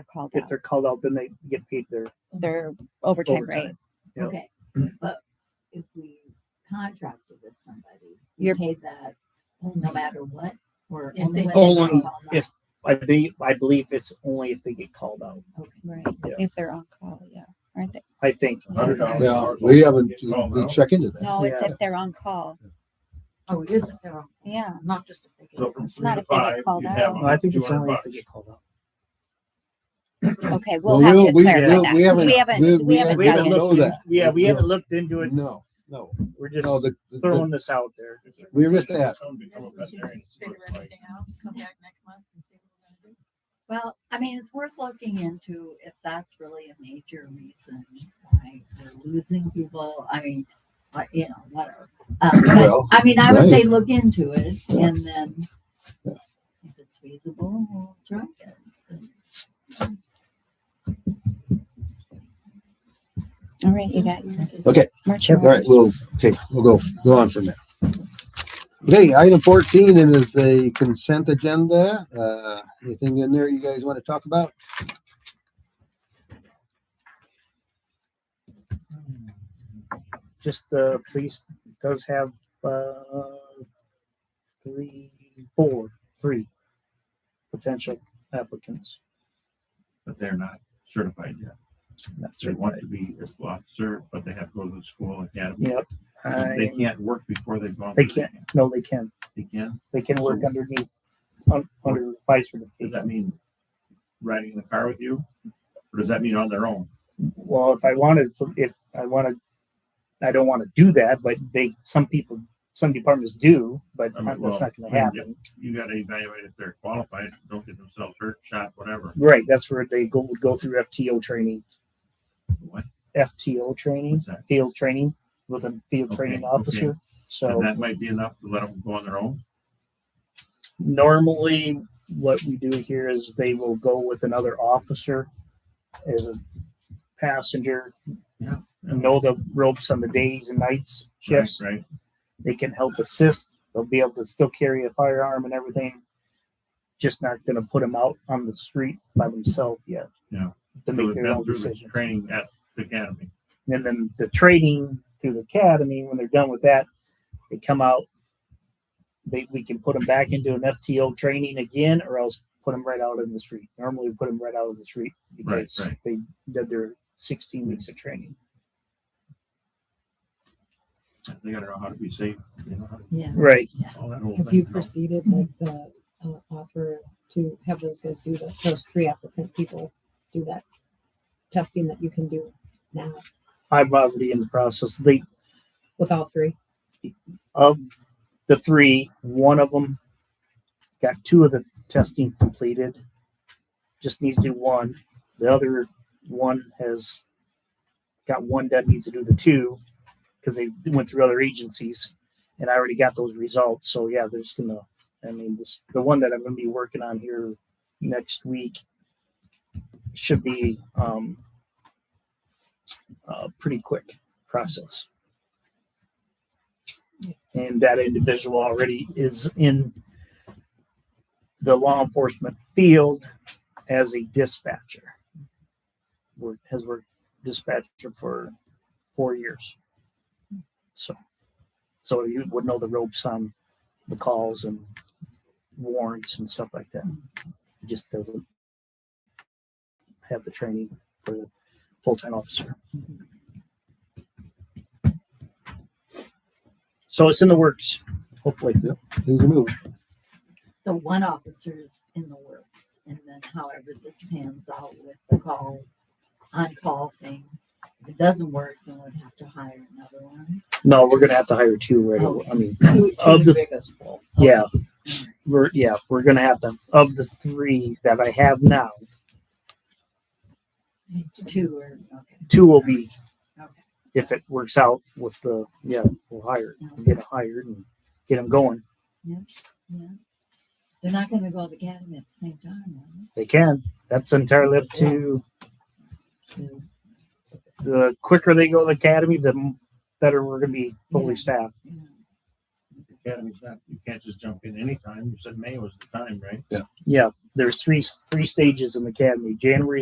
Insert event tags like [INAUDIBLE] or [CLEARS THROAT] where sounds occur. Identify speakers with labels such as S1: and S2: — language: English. S1: are called
S2: If
S1: out.
S2: they're called out, then they get paid their
S1: Their overtime rate.
S2: overtime. Yep.
S3: Okay,
S2: [CLEARS THROAT]
S3: but if we contracted with somebody, we
S1: You're-
S3: pay that no matter what, or
S4: If
S3: only
S4: they-
S3: when
S2: Only
S3: they call out.
S2: if- I be, I believe it's only if they get called out.
S3: Okay.
S1: Right.
S2: Yeah.
S1: If they're on call, yeah. Aren't they?
S2: I think.
S3: Hundred dollars.
S5: Yeah, we haven't,
S6: It's all
S5: we
S6: now.
S5: check into that.
S1: No, it's
S2: Yeah.
S1: if they're on call.
S4: Oh, it is if they're on,
S1: Yeah.
S4: not just if they get.
S6: So from
S1: It's
S6: three
S1: not
S6: to
S1: if they get
S6: five,
S1: called
S6: you'd
S1: out.
S6: have
S2: No, I think it's
S6: 200
S2: only if they
S6: bucks.
S2: get called out.
S1: Okay.
S5: Well,
S1: We'll have to
S5: we'll- we-
S1: clarify
S5: we'll-
S1: that
S5: we
S1: because we haven't,
S5: haven't- we-
S1: we
S5: we
S1: haven't
S5: haven't
S2: We
S1: dug
S2: haven't
S5: know
S1: into
S2: looked, in-
S5: that.
S2: yeah, we
S5: Yeah.
S2: haven't looked into it.
S5: No, no,
S2: We're just
S5: no, the, the- the-
S2: throwing this out there.
S5: we were just asked,
S6: Somebody come up
S4: Guess we
S6: there and
S4: should
S6: see what it's
S4: figure
S6: like.
S4: everything out, come back next month and see what we're gonna do.
S3: Well, I mean, it's worth looking into if that's really a major reason why we're losing people. I mean, but, you know, whatever. Um, but,
S5: Well,
S3: I mean, I would say
S5: right.
S3: look into it and then if it's feasible, we'll try it.
S1: All right, you got your.
S5: Okay.
S1: March.
S5: all right, we'll, okay, we'll go, go on from there. Okay, item fourteen and is the consent agenda. Uh, anything in there you guys want to talk about?
S2: Just, uh, police does have, uh, three, four, three potential applicants.
S6: But they're not certified yet.
S2: That's
S6: They
S2: right.
S6: want to be a school officer, but they have to go to the school academy.
S2: Yep.
S6: They
S2: I,
S6: can't work before they've gone.
S2: They
S6: through that.
S2: no, they can,
S6: They can.
S2: they can work underneath, un- under vice
S6: Does
S2: certification.
S6: that mean riding in the car with you? Or does that mean on their own?
S2: Well, if I wanted, to- if I wanted, I don't want to do that, but they, some people, some departments do, but
S6: I mean,
S2: that's
S6: well,
S2: not going to
S6: yeah.
S2: happen.
S6: You gotta evaluate if they're qualified, don't get themselves hurt, shot, whatever.
S2: Right, that's where they go would go through FTO training,
S6: What?
S2: FTO training,
S6: What's that?
S2: field training with a field
S6: Okay,
S2: training
S6: okay.
S2: officer. So
S6: And that might be enough to let them go on their own?
S2: normally, what we do here is they will go with another officer as a passenger,
S6: Yeah.
S2: know the ropes on the days and nights shifts.
S6: Right, right?
S2: They can help assist. They'll be able to still carry a firearm and everything. Just not going to put them out on the street by themselves yet.
S6: Yeah.
S2: To
S6: So
S2: make
S6: they've
S2: their
S6: been
S2: own
S6: through the
S2: decision.
S6: Training at the academy.
S2: and then the training through the academy when they're done with that they come out they, we can put them back into an fto training again or else put them right out in the street normally we put them right out in the street because
S6: Right, right.
S2: they did their 16 weeks of training
S6: They gotta know how to be safe, you know, how to-
S4: Yeah.
S2: right
S6: all that whole
S4: Have
S6: thing,
S4: you
S6: you know.
S4: proceeded
S2: Mm-hmm.
S4: with the uh, offer to have those guys do the, those three applicant people do that testing that you can do now
S2: i'm already in the process they
S4: with all three?
S2: of the three one of them got two of the testing completed just needs to do one the other one has got one done needs to do the two because they went through other agencies and i already got those results so yeah they're just gonna i mean this the one that i'm gonna be working on here next week should be um a pretty quick process and that individual already is in the law enforcement field as a dispatcher. Work, has worked dispatcher for four years. So, so you would know the ropes on the calls and warrants and stuff like that. He just doesn't have the training for the full-time officer. So it's in the works, hopefully.
S5: Things are moving.
S3: So one officer's in the works, and then however this pans out with the call, on-call thing, if it doesn't work, then we'd have to hire another one.
S2: No, we're gonna have to hire two right away. I mean, of the yeah, we're yeah we're gonna have to of the three that I have now,
S3: Two or, okay,
S2: two will be
S3: okay.
S2: if it works out with the yeah we'll hire get them hired and get them going.
S3: Yeah. They're not gonna go to the academy at the same time, are
S2: They can. That's entirely up to the quicker they go to the academy, the better we're gonna be fully staffed.
S3: they? Yeah.
S6: Academy's not, you can't just jump in anytime. You said May was the time, right?
S2: Yeah, there's three, three stages in the academy. January